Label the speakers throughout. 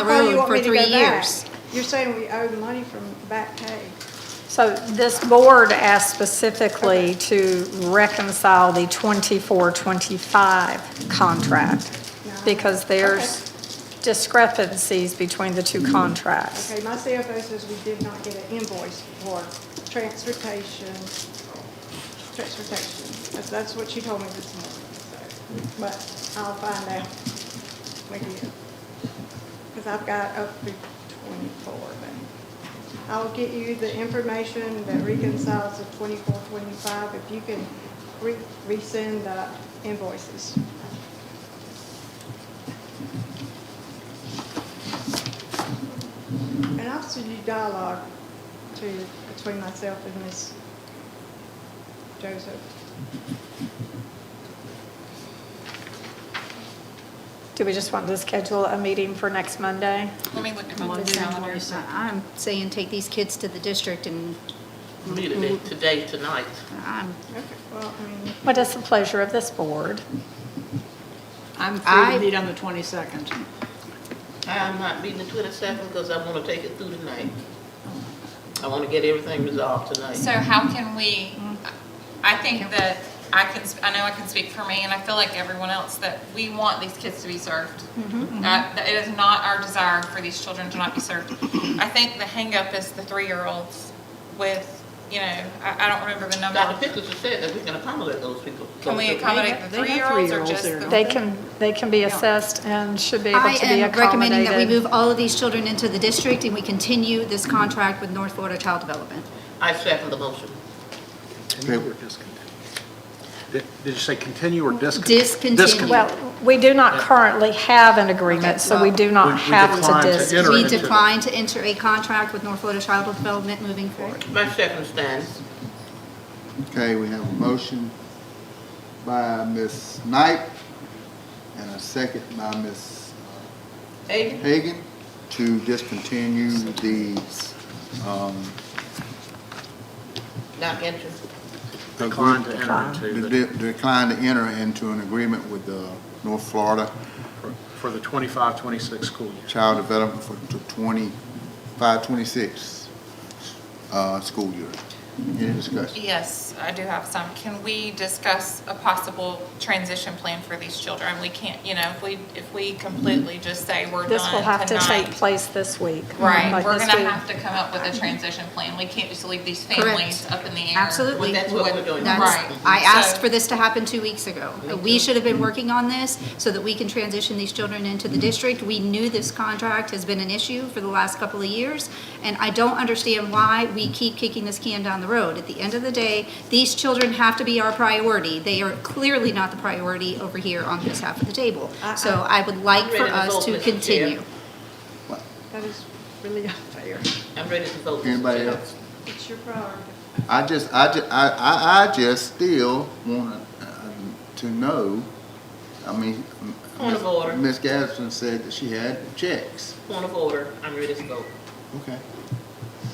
Speaker 1: want
Speaker 2: for
Speaker 1: me to go
Speaker 2: three
Speaker 1: back.
Speaker 2: years.
Speaker 1: You're saying we owe money from back pay.
Speaker 3: So this board asked specifically to reconcile the 24-25 contract because there's discrepancies between the two contracts.
Speaker 1: Okay, my CFO says we did not get an invoice for transportation, transportation. That's, that's what she told me this morning, so, but I'll find out with you. Because I've got up to twenty-four, but I'll get you the information that reconciles the twenty-four, twenty-five, if you can re- resend the invoices. And I'll send you dialogue to, between myself and Miss Joseph.
Speaker 3: Do we just want to schedule a meeting for next Monday?
Speaker 2: Let me look at my calendar.
Speaker 4: I- I'm saying take these kids to the district and
Speaker 5: Meet
Speaker 2: Mm-hmm.
Speaker 5: it today, tonight.
Speaker 4: I'm,
Speaker 1: Okay, well, I mean,
Speaker 3: What is the pleasure of this board?
Speaker 6: I'm
Speaker 4: I-
Speaker 6: free to meet on the 22nd.
Speaker 5: I'm not meeting the twenty-seventh because I want to take it through tonight. I want to get everything resolved tonight.
Speaker 2: So how can we, I think that I can, sp- I know I can speak for me, and I feel like everyone else, that we want these kids to be served.
Speaker 6: Mm-hmm.
Speaker 2: That, that it is not our desire for these children to not be served. I think the hangup is the three-year-olds with, you know, I, I don't remember the
Speaker 5: Dr.
Speaker 2: number.
Speaker 5: Pickles has said that we can accommodate those people.
Speaker 2: Can we accommodate the
Speaker 6: They have
Speaker 2: three-year-olds or
Speaker 6: three-year-olds
Speaker 2: just
Speaker 6: there,
Speaker 2: the?
Speaker 6: don't
Speaker 3: They can, they can be assessed and should be able to
Speaker 4: I
Speaker 3: be accommodated.
Speaker 4: am recommending that we move all of these children into the district and we continue this contract with North Florida Child Development.
Speaker 5: I second the motion.
Speaker 7: Continue or discontinue? Did did you say continue or discontinue?
Speaker 4: Discontinue.
Speaker 3: Well, we do not currently have an agreement, so we do
Speaker 7: We-
Speaker 3: not
Speaker 7: we
Speaker 3: have
Speaker 7: declined
Speaker 3: to
Speaker 7: to
Speaker 3: dis.
Speaker 7: enter
Speaker 4: We
Speaker 7: into the-
Speaker 4: decline to enter a contract with North Florida Child Development moving forward.
Speaker 5: My second stands.
Speaker 8: Okay, we have a motion by Ms. Knight and a second by Ms.
Speaker 5: Aiden?
Speaker 8: Hagan to discontinue the, um,
Speaker 5: Not interested.
Speaker 7: Decline to enter
Speaker 8: the
Speaker 7: into the-
Speaker 8: de- decline to enter into an agreement with the North Florida
Speaker 7: for the 25, 26 school year.
Speaker 8: Child Development for the twenty-five, twenty-six, uh, school year. Any discussion?
Speaker 2: Yes, I do have some. Can we discuss a possible transition plan for these children? We can't, you know, if we, if we completely just say we're done
Speaker 3: Mm-hmm. This will have to take
Speaker 2: tonight-
Speaker 3: place this week.
Speaker 2: Right,
Speaker 3: like
Speaker 2: we're
Speaker 3: this
Speaker 2: gonna
Speaker 3: week.
Speaker 2: have to come up with a transition plan. We can't just leave these
Speaker 4: Correct.
Speaker 2: families up in the air.
Speaker 4: Absolutely.
Speaker 5: Well, that's what we're doing.
Speaker 4: That's,
Speaker 2: Right.
Speaker 4: I asked
Speaker 2: So-
Speaker 4: for this to happen two weeks ago. We should have been working on this so that we can transition these children into the district. We knew this contract has been an issue for the last couple of years, and I don't understand why we keep kicking this can down the road. At the end of the day, these children have to be our priority. They are clearly not the priority over here on this half of the table.
Speaker 5: Uh-uh.
Speaker 4: So I would like
Speaker 5: I'm
Speaker 4: for
Speaker 5: ready to
Speaker 4: us
Speaker 5: vote,
Speaker 4: to
Speaker 5: Mr. Chair.
Speaker 4: continue.
Speaker 1: that is really unfair.
Speaker 5: I'm ready to vote. Mr.
Speaker 8: Anybody
Speaker 5: Chair.
Speaker 8: else?
Speaker 1: It's your priority.
Speaker 8: I just, I just, I, I, I just still want uh, to know, I mean.
Speaker 5: Point of order.
Speaker 8: Ms. Gadsden said that she had checks.
Speaker 5: Point of order, I'm ready to vote.
Speaker 8: Okay.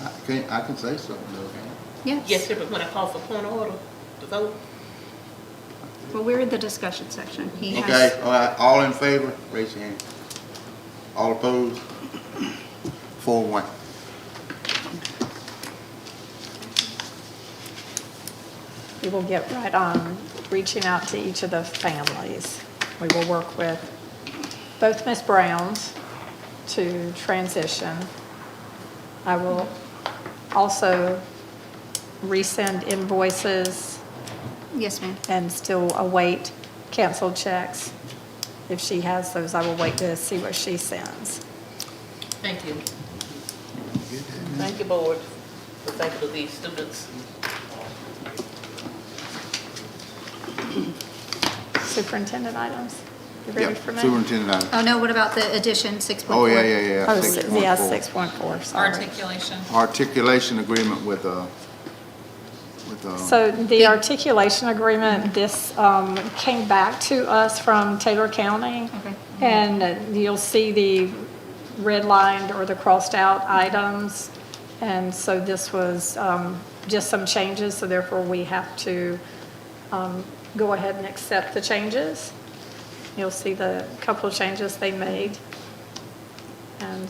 Speaker 8: I can, I can say something though, can
Speaker 5: Yes, sir, but when I call for point of order, to vote,
Speaker 4: Well, we're in the discussion section. He
Speaker 8: I?
Speaker 4: has.
Speaker 8: Okay, all right, all in favor, raise your hand. All opposed? Four, one.
Speaker 3: We will get right on reaching out to each of the families. We will work with both Ms. Browns to transition. I will also resend invoices
Speaker 4: Yes, ma'am.
Speaker 3: and still await canceled checks. If she has those, I will wait to see what she sends.
Speaker 5: thank you. Thank you, board, for thanking these students.
Speaker 3: Superintendent items? You ready
Speaker 8: Yep,
Speaker 3: for me?
Speaker 8: superintendent item.
Speaker 4: Oh, no, what about the addition, 6.4?
Speaker 8: Oh, yeah, yeah, yeah.
Speaker 3: Oh, si- yeah,
Speaker 8: 6.4.
Speaker 3: 6.4, sorry.
Speaker 2: Articulation.
Speaker 8: Articulation agreement with, uh, with, uh,
Speaker 3: So the articulation agreement, this um, came back to us from Taylor County.
Speaker 4: Okay.
Speaker 3: And you'll see the redlined or the crossed-out items. And so this was um, just some changes, so therefore we have to um, go ahead and accept the changes. You'll see the couple of changes they made. And